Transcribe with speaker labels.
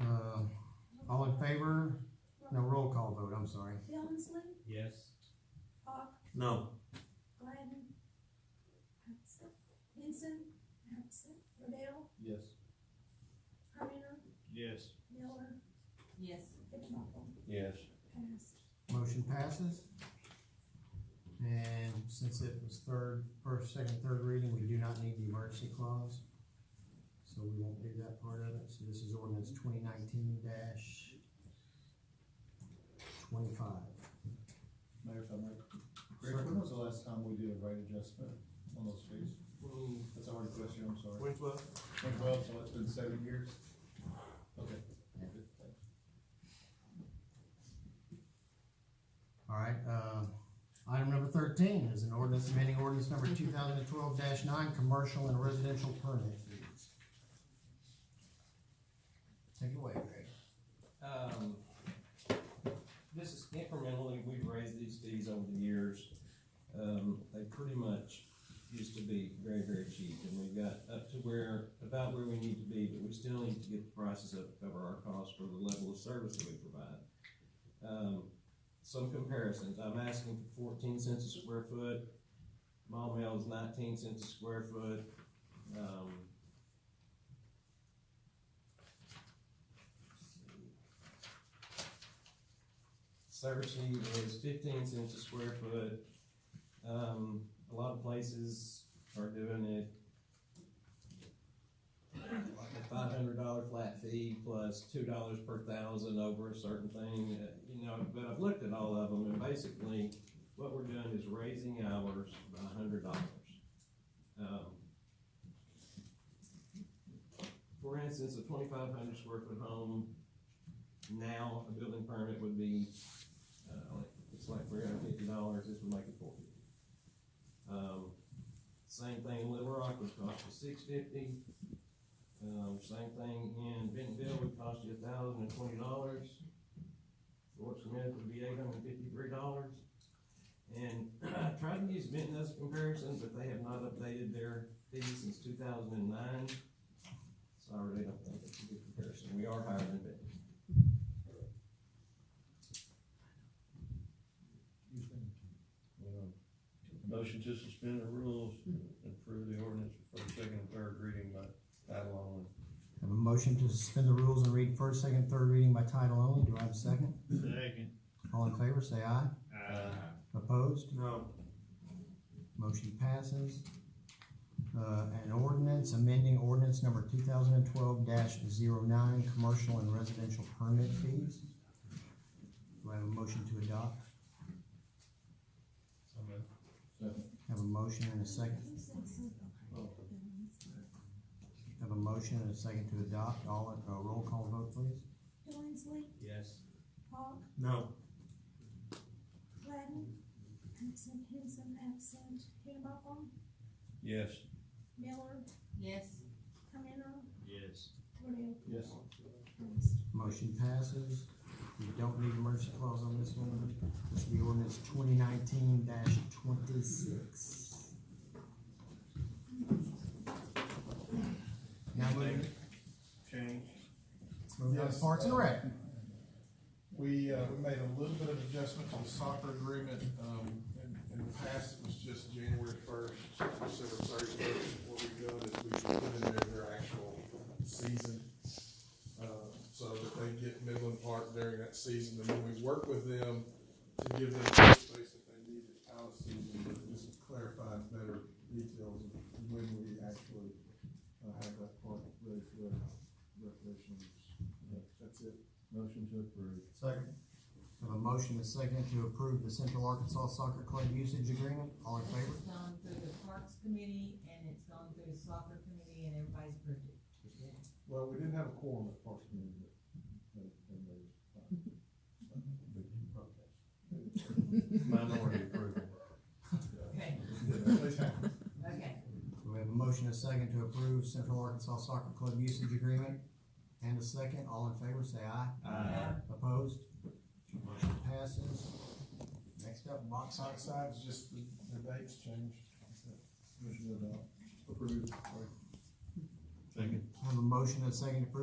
Speaker 1: Uh, favor? No, roll call vote, I'm sorry.
Speaker 2: Billingsley,
Speaker 3: Yes.
Speaker 2: Hawk,
Speaker 4: No.
Speaker 2: Gladden, Vincent, Rodell,
Speaker 3: Yes.
Speaker 2: Carmina,
Speaker 3: Yes.
Speaker 2: Miller,
Speaker 5: Yes.
Speaker 2: Higginbotham,
Speaker 4: Yes.
Speaker 2: passed.
Speaker 1: Motion passes. And since it was third, first, second, third reading, we do not need the emergency clause. So we won't do that part of it. So this is ordinance twenty nineteen dash twenty-five.
Speaker 6: Mayor, if I might, Greg, when was the last time we did a rate adjustment on those fees? That's already question, I'm sorry.
Speaker 4: Which was?
Speaker 6: Twenty twelve, so it's been seven years? Okay.
Speaker 1: Yeah.
Speaker 6: Good, thanks.
Speaker 1: All right, uh, item number thirteen is an ordinance amending ordinance number two thousand and twelve nine, commercial and residential permit fees. Take it away, Greg.
Speaker 7: Um, this is incrementally, we've raised these fees over the years. Um, they pretty much used to be very, very cheap, and we've got up to where, about where we need to be, but we still need to get the prices up to cover our costs for the level of service that we provide. Um, some comparisons, I'm asking for fourteen cents a square foot, mall mail is nineteen cents a square foot, um. let's see. Cersei is fifteen cents a square foot. Um, a lot of places are doing it like a five hundred dollar flat fee plus two dollars per thousand over a certain thing, uh, you know, but I've looked at all of them and basically what we're doing is raising hours by a hundred dollars. Um, For instance, a twenty-five hundred square foot home, now a building permit would be uh, like, it's like three hundred fifty dollars, this would make it four fifty. Um, same thing in Little Rock would cost you six fifty. Um, same thing in Bentonville would cost you a thousand and twenty dollars. Fort Smith would be eight hundred and fifty-three dollars. And I tried to use Benton as a comparison, but they have not updated their fees since two thousand and nine. So I really don't think it's a good comparison, we are higher than Benton.
Speaker 4: Motion to suspend the rules and approve the ordinance for the second and third reading by title only.
Speaker 1: Have a motion to suspend the rules and read first, second, third reading by title only. Do I have a second?
Speaker 3: Second.
Speaker 1: All in favor, say aye. Opposed?
Speaker 4: No.
Speaker 1: Motion passes. Uh, an ordinance amending ordinance number two thousand and twelve 9 commercial and residential permit fees. Do I have a motion to adopt?
Speaker 6: Second.
Speaker 1: Have a motion and a second.
Speaker 2: You said something.
Speaker 1: Have a motion and a second to adopt. All, uh, roll call vote, please.
Speaker 2: Billingsley,
Speaker 3: Yes.
Speaker 2: Hawk,
Speaker 4: No.
Speaker 2: Gladden, absent, Henson, absent, Higginbotham,
Speaker 4: Yes.
Speaker 2: Miller,
Speaker 5: Yes.
Speaker 2: Carmina,
Speaker 3: Yes.
Speaker 2: Rodell,
Speaker 6: Yes.
Speaker 2: passed.
Speaker 1: Motion passes. We don't need emergency clause on this one. This will be ordinance twenty nineteen twenty-six. Now moving,
Speaker 4: Change.
Speaker 1: moving on to
Speaker 6: Yes.
Speaker 1: Parks and Rec.
Speaker 6: We, uh, we made a little bit of adjustment to the soccer agreement, um, in, in the past, it was just January first, December thirty-first. What we've done is we've put in there their actual season, uh, so that they get Midland Park during that season, and then we work with them to give them the space that they need out of season, but just clarifies better details of when we actually, uh, have that park ready for their recreational use. That's it. Motion to approve.
Speaker 1: Second. Have a motion and a second to approve the Central Arkansas Soccer Club usage agreement. All in favor?
Speaker 5: It's gone through the Parks Committee and it's gone through the Soccer Committee and everybody's approved it.
Speaker 6: Well, we didn't have a quorum at Parks and Rec, but, but,
Speaker 4: Minority approval.
Speaker 5: Okay,
Speaker 6: okay.
Speaker 5: okay.
Speaker 1: So we have a motion and a second to approve Central Arkansas Soccer Club usage agreement. And a second. All in favor, say aye.
Speaker 5: Uh,
Speaker 1: Opposed? Motion passes. Next up, box
Speaker 6: Side,
Speaker 1: outside.
Speaker 6: side's just the, the dates changed. That's it. Motion to adopt. Approved. Sorry.
Speaker 4: Second.
Speaker 1: Have a motion and a second to approve